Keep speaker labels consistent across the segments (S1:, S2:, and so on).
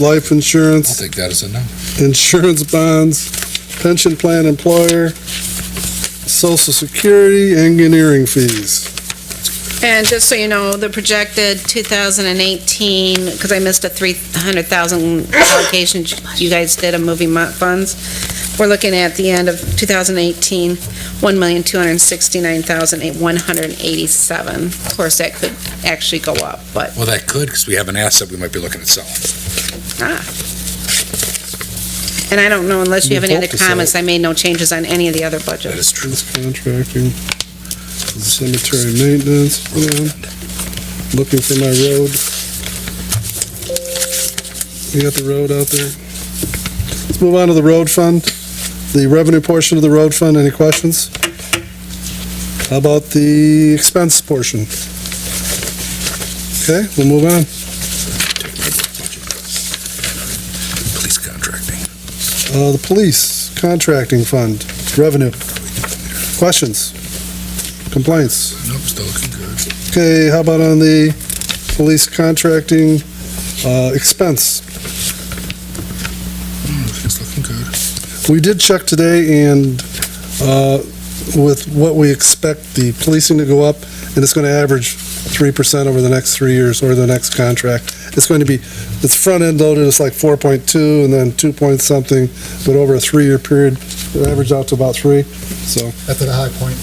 S1: life
S2: I'll
S1: insurance,
S2: take that as a no.
S1: insurance bonds, pension plan employer, social security, engineering fees.
S3: And just so you know, the projected 2018, because I missed a 300,000 allocation you guys did of moving mo- funds, we're looking at the end of 2018, 1,269,187. Of course, that could actually go up, but,
S2: Well, that could, because we have an asset we might be looking at selling.
S3: ah. And I don't know, unless you have any
S1: You'd
S3: other
S1: hope to sell
S3: comments, I made no changes on any of the other
S2: That
S3: budgets.
S2: is true.
S1: Contracting, cemetery maintenance, hold on. looking for my road. You got the road out there? Let's move on to the road fund, the revenue portion of the road fund, any questions? How about the expense portion? Okay, we'll move on.
S2: Take my budget. Police contracting.
S1: Uh, the police contracting fund, revenue. Questions? Complaints?
S2: Nope, still looking good.
S1: Okay, how about on the police contracting uh, expense?
S2: Everything's Hmm, looking good.
S1: We did check today and uh, with what we expect the policing to go up, and it's going to average 3% over the next three years or the next contract. It's going to be, it's front-end loaded, it's like 4.2 and then 2 point something, but over a three-year period, it averages out to about 3, so
S4: That's at a high point.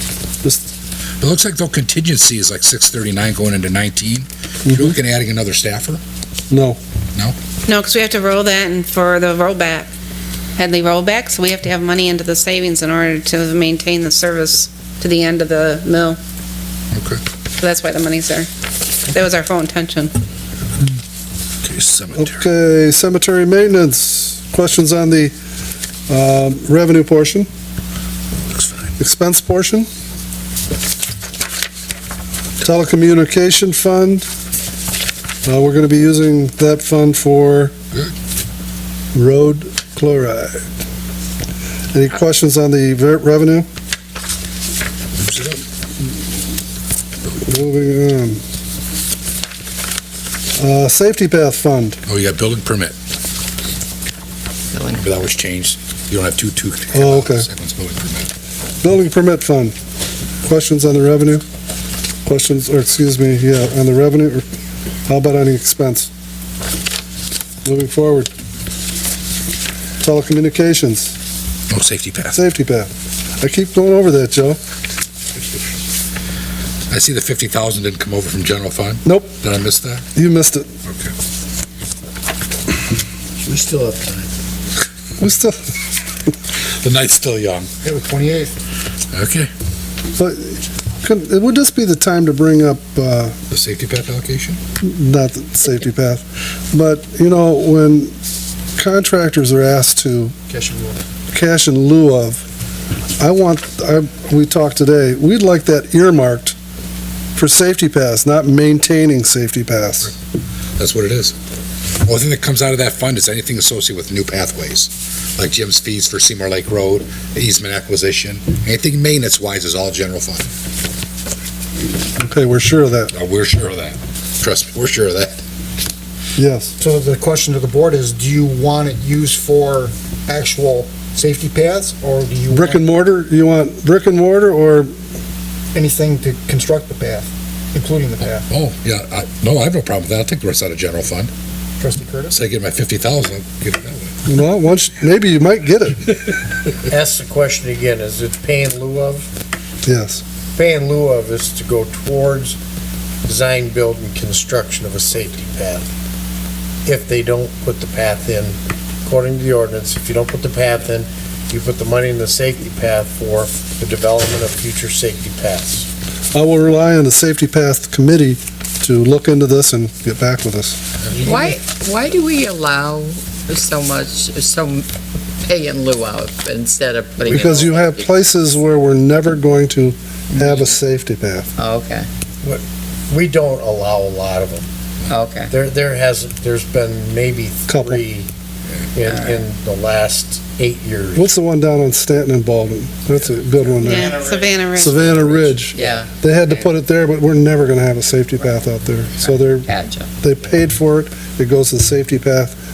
S1: just,
S2: It looks like though contingency is like six thirty-nine going into nineteen.
S1: Mm-hmm.
S2: You're looking at adding another staffer?
S1: no.
S3: No, because we have to roll that and for the rollback, Headley rollback, so we have to have money into the savings in order to maintain the service to the end of the mill.
S2: Okay.
S3: So that's why the money's there. That was our full intention.
S2: Okay, cemetery.
S1: Okay, cemetery maintenance, questions on the um, revenue portion,
S2: Looks fine.
S1: expense portion? Telecommunication fund, Uh, we're going to be using that fund for
S2: Good.
S1: road chloride. Any questions on the ver- revenue?
S2: Oops, it up.
S1: Moving on. Uh, Safety path fund,
S2: Oh, you got building permit. Remember that was changed. You don't have two, two.
S1: Oh, okay.
S2: Second one's building permit.
S1: Building permit fund. Questions on the revenue? Questions, or excuse me, yeah, on the revenue, or how about on the expense? Moving forward. Telecommunications,
S2: No safety path.
S1: safety path. I keep going over that, Joe.
S2: I see the fifty thousand didn't come over from general fund.
S1: Nope.
S2: Did I miss that?
S1: You missed it.
S2: Okay.
S4: We still have time.
S1: We still,
S2: The night's still young.
S4: It was 28th.
S2: Okay.
S1: but couldn't, it would just be the time to bring up, uh,
S2: The safety path allocation?
S1: not the safety path, but, you know, when contractors are asked to
S4: Cash and roll.
S1: cash in lieu of, I want, I, we talked today, we'd like that earmarked for safety pass, not maintaining safety pass.
S2: That's what it is. Only thing that comes out of that fund is anything associated with new pathways, like Jim's fees for Seymour Lake Road, easement acquisition, anything maintenance-wise is all general fund.
S1: Okay, we're sure of that,
S2: Uh, We're sure of that. Trust me, we're sure of that.
S1: yes.
S4: So the question to the board is, do you want it used for actual safety paths, or do you
S1: Brick and
S4: want
S1: mortar, you want brick and mortar or,
S4: anything to construct the path, including the path?
S2: Oh, yeah, I, no, I have no problem with that. I'll take the rest out of general fund.
S4: Trustee Curtis?
S2: Say, get my fifty thousand, I'll get it that way.
S1: well, once, maybe you might get it,
S5: ask the question again, is it pay in lieu of?
S1: yes.
S5: Pay in lieu of is to go towards design, build, and construction of a safety path. If they don't put the path in, according to the ordinance, if you don't put the path in, you put the money in the safety path for the development of future safety paths.
S1: I will rely on the safety path committee to look into this and get back with us.
S6: Why, why do we allow so much, so pay in lieu of instead of putting? it
S1: Because
S6: all-
S1: you have places where we're never going to have a safety path.
S6: Oh, Okay,
S5: We don't allow a lot of them.
S6: okay.
S5: There, there hasn't, there's been maybe
S1: Couple.
S5: three in, in the last eight years.
S1: What's the one down on Stanton and Baldwin? That's a good one there.
S3: Yeah, Savannah Ridge.
S1: Savannah Ridge.
S6: Yeah,
S1: They had to put it there, but we're never gonna have a safety path out there. So they're,
S6: gotcha.
S1: they paid for it, it goes to the safety path.